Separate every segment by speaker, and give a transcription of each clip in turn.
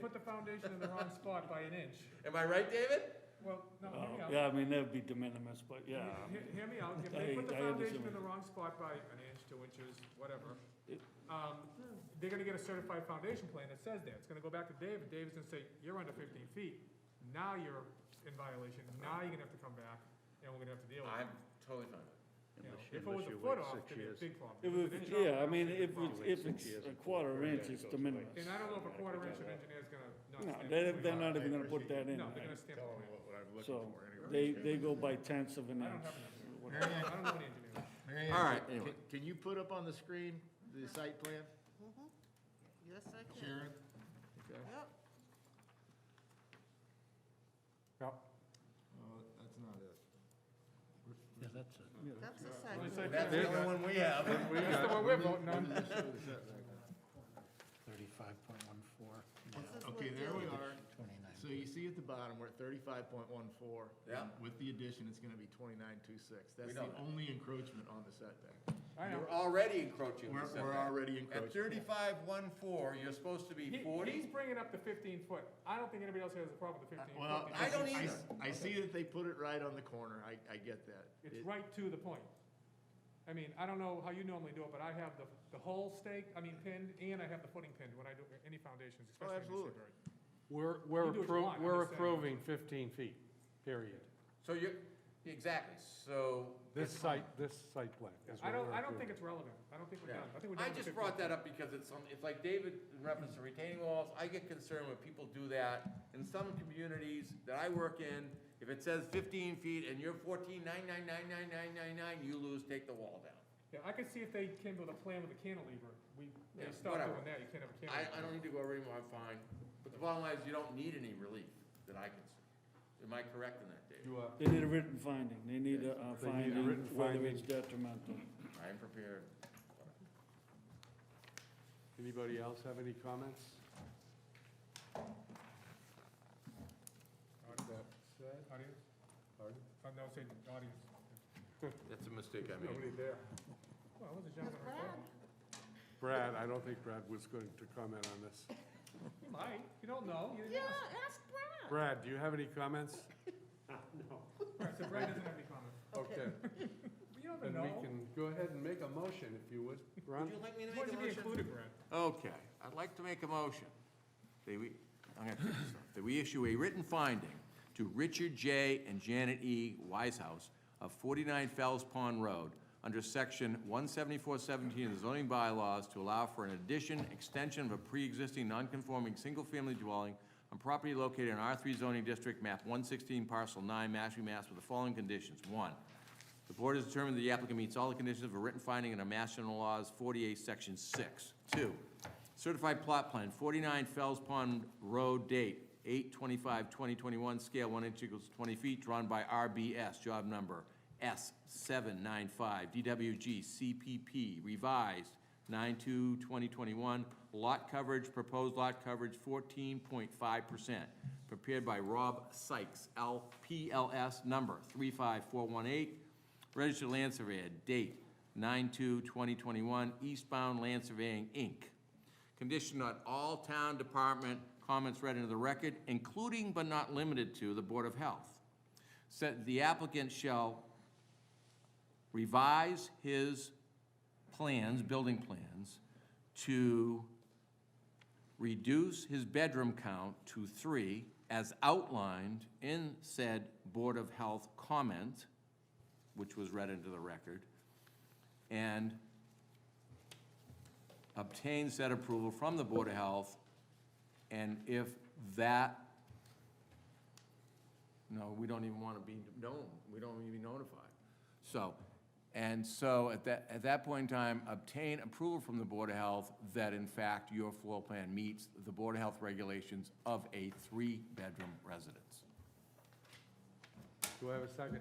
Speaker 1: put the foundation in the wrong spot by an inch.
Speaker 2: Am I right, David?
Speaker 1: Well, no, hear me
Speaker 3: Oh,
Speaker 1: out.
Speaker 3: Yeah, I mean, that'd be de minimis, but yeah.
Speaker 1: Hear- Hear me out, if they
Speaker 3: I-
Speaker 1: put the
Speaker 3: I
Speaker 1: foundation
Speaker 3: understand what
Speaker 1: in the
Speaker 3: you-
Speaker 1: wrong spot by an inch, two inches, whatever,
Speaker 3: It-
Speaker 1: um, they're gonna get a certified foundation plan that says that, it's gonna go back to David, David's gonna say, you're under fifteen feet, now you're in violation, now you're gonna have to come back, and we're gonna have to deal with it.
Speaker 2: I'm totally fine with
Speaker 1: You know,
Speaker 4: Unless you-
Speaker 1: If it was
Speaker 4: unless
Speaker 1: a
Speaker 4: you
Speaker 1: foot
Speaker 4: wait
Speaker 1: off,
Speaker 4: six
Speaker 1: it'd be a
Speaker 4: years.
Speaker 1: big problem. If
Speaker 3: If it-
Speaker 1: it's an inch
Speaker 3: Yeah,
Speaker 1: off,
Speaker 3: I mean,
Speaker 1: it's a big
Speaker 3: if it's,
Speaker 1: problem.
Speaker 3: if it's a quarter inch, it's de minimis.
Speaker 1: And I don't know if a quarter inch of
Speaker 4: Yeah.
Speaker 1: engineer's gonna not
Speaker 3: No,
Speaker 1: stamp.
Speaker 3: they're,
Speaker 1: the
Speaker 3: they're
Speaker 1: plan.
Speaker 3: not even gonna put that in.
Speaker 1: No, they're gonna stamp the
Speaker 4: Tell
Speaker 1: plan.
Speaker 4: them what- what I'm
Speaker 3: So,
Speaker 4: looking for
Speaker 3: they,
Speaker 4: anyway.
Speaker 3: they go by tenths of an
Speaker 1: I don't
Speaker 3: inch.
Speaker 1: have an engineer, I don't know an engineer.
Speaker 4: Mary
Speaker 2: All right,
Speaker 4: Ann,
Speaker 2: anyway.
Speaker 4: can- Can you put up on the screen the site plan,
Speaker 5: Mm-hmm. Yes, I can.
Speaker 4: Sharon? Okay.
Speaker 5: Yep,
Speaker 4: Oh, that's not it.
Speaker 6: Yeah, that's it.
Speaker 5: that's a site.
Speaker 2: it.
Speaker 5: plan.
Speaker 2: That's the only one we have.
Speaker 1: That's the one we're voting on.
Speaker 6: Thirty-five point one four,
Speaker 5: This is what
Speaker 4: Okay, there we
Speaker 5: David-
Speaker 4: are.
Speaker 6: twenty-nine.
Speaker 4: So you see at the bottom, we're at thirty-five point one four.
Speaker 2: Yeah.
Speaker 4: With the addition, it's gonna be twenty-nine two six.
Speaker 2: We
Speaker 4: That's
Speaker 2: know
Speaker 4: the
Speaker 2: that.
Speaker 4: only encroachment on the setback.
Speaker 1: I know.
Speaker 2: You're already encroaching. on
Speaker 4: We're,
Speaker 2: the
Speaker 4: we're
Speaker 2: setback.
Speaker 4: already
Speaker 2: At
Speaker 4: encroaching.
Speaker 2: thirty-five, one, four, you're supposed to
Speaker 1: He-
Speaker 2: be
Speaker 1: He's
Speaker 2: forty?
Speaker 1: bringing up the fifteen foot. I don't think anybody else here has a problem with the fifteen
Speaker 4: Well,
Speaker 1: foot.
Speaker 2: I don't
Speaker 4: see-
Speaker 2: either.
Speaker 4: I see that they put it right on the corner. I, I get that.
Speaker 2: e-
Speaker 1: It's
Speaker 4: It-
Speaker 1: right to the point. I mean, I don't know how you normally do it, but I have the, the whole stake, I mean pinned, and I have the footing pinned when I do any foundations,
Speaker 2: Oh,
Speaker 1: especially in this
Speaker 4: absolutely.
Speaker 1: area.
Speaker 7: We're, we're
Speaker 1: You do what you want,
Speaker 7: appro,
Speaker 1: I'm just
Speaker 7: we're
Speaker 1: saying.
Speaker 7: approving fifteen feet, period.
Speaker 2: So you're, exactly, so.
Speaker 7: This site, this site plan is
Speaker 1: I
Speaker 7: what
Speaker 1: don't,
Speaker 7: we're
Speaker 1: I don't think
Speaker 7: approving.
Speaker 1: it's relevant. I don't think we're
Speaker 2: Yeah.
Speaker 1: done. I think we're done
Speaker 2: I
Speaker 1: with
Speaker 2: just
Speaker 1: 15
Speaker 2: brought that up because it's, some- it's like David in reference to retaining walls, I get concerned when people do that. In some communities that I work in, if it says fifteen feet and you're fourteen, nine, nine, nine, nine, nine, nine, nine, you lose, take the wall down.
Speaker 1: Yeah, I could see if they came with a plan with a cantilever. We,
Speaker 2: Yeah,
Speaker 1: they stopped
Speaker 2: whatever.
Speaker 1: doing that. You can't have a
Speaker 2: I,
Speaker 1: cantilever.
Speaker 2: I don't e- need to go over anymore, I'm fine. But the bottom line is, you don't need any relief that I can see. Am I correct in that, David?
Speaker 3: They need a written finding. They need a a
Speaker 7: They need a written
Speaker 3: finding whether it's
Speaker 7: finding.
Speaker 3: detrimental.
Speaker 2: I am prepared.
Speaker 7: Anybody else have any comments?
Speaker 1: Audience? Oh, no, say audience.
Speaker 2: That's a mistake I
Speaker 1: Nobody there. Well, it was a gentleman. right there.
Speaker 7: Brad, I don't think Brad was going to comment on this.
Speaker 1: You might. You don't know. You-
Speaker 5: Yeah, ask Brad.
Speaker 7: Brad, do you have any comments?
Speaker 1: Right, so Brad doesn't have any comments.
Speaker 7: Okay,
Speaker 1: You never
Speaker 7: then we
Speaker 1: know.
Speaker 7: can go ahead and make a motion if you would.
Speaker 2: Would you
Speaker 7: Ron?
Speaker 2: like me to
Speaker 1: Why
Speaker 2: make
Speaker 1: don't
Speaker 2: a
Speaker 1: you be
Speaker 2: motion?
Speaker 1: included, Brad?
Speaker 2: Okay, I'd like to make a motion. That we, I'm gonna fix this up. That we issue a written finding to Richard J. and Janet E. Wisehouse of 49 Fells Pond Road under section 17417 of the zoning bylaws to allow for an addition, extension of a pre-existing non-conforming single-family dwelling on property located in R3 zoning district, map 116, parcel 9, Mashpee, Mass, with the following conditions. One, the board has determined that the applicant meets all the conditions of a written finding under Mass General Laws 48, Section 6. Two, certified plot plan, 49 Fells Pond Road, date 8/25/2021, scale 1 inch equals 20 feet, drawn by RBS, job number S795, DWG CPP, revised 9/2/2021, lot coverage, proposed lot coverage 14.5%, prepared by Rob Sykes, LPLS number 35418, registered land surveyor, date 9/2/2021, Eastbound Land Surveying, Inc. Condition on all town department comments read into the record, including but not limited to the Board of Health. Said the applicant shall revise his plans, building plans, to reduce his bedroom count to three as outlined in said Board of Health comment, which was read into the record, and obtain said approval from the Board of Health, and if that, no, we don't even want to be known, we don't even notify. So, and so at that, at that point in time, obtain approval from the Board of Health that in fact your floor plan meets the Board of Health regulations of a three-bedroom residence.
Speaker 7: Do I have a second?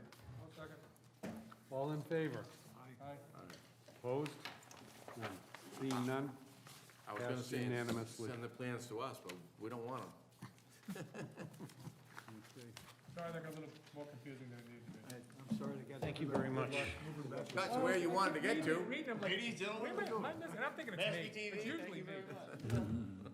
Speaker 7: All in favor?
Speaker 1: Aye.
Speaker 7: Opposed? None. Seeing none?
Speaker 2: I was gonna
Speaker 7: Passed
Speaker 2: say,
Speaker 7: unanimously.
Speaker 2: send the plans to us, but we don't want them.
Speaker 1: Sorry, that got a little more confusing than it needed to be.
Speaker 6: I'm sorry to get. Thank you very much.
Speaker 2: That's where you wanted to get to.
Speaker 1: Reading them like. Ladies, gentlemen. And I'm thinking it's me. It's usually me.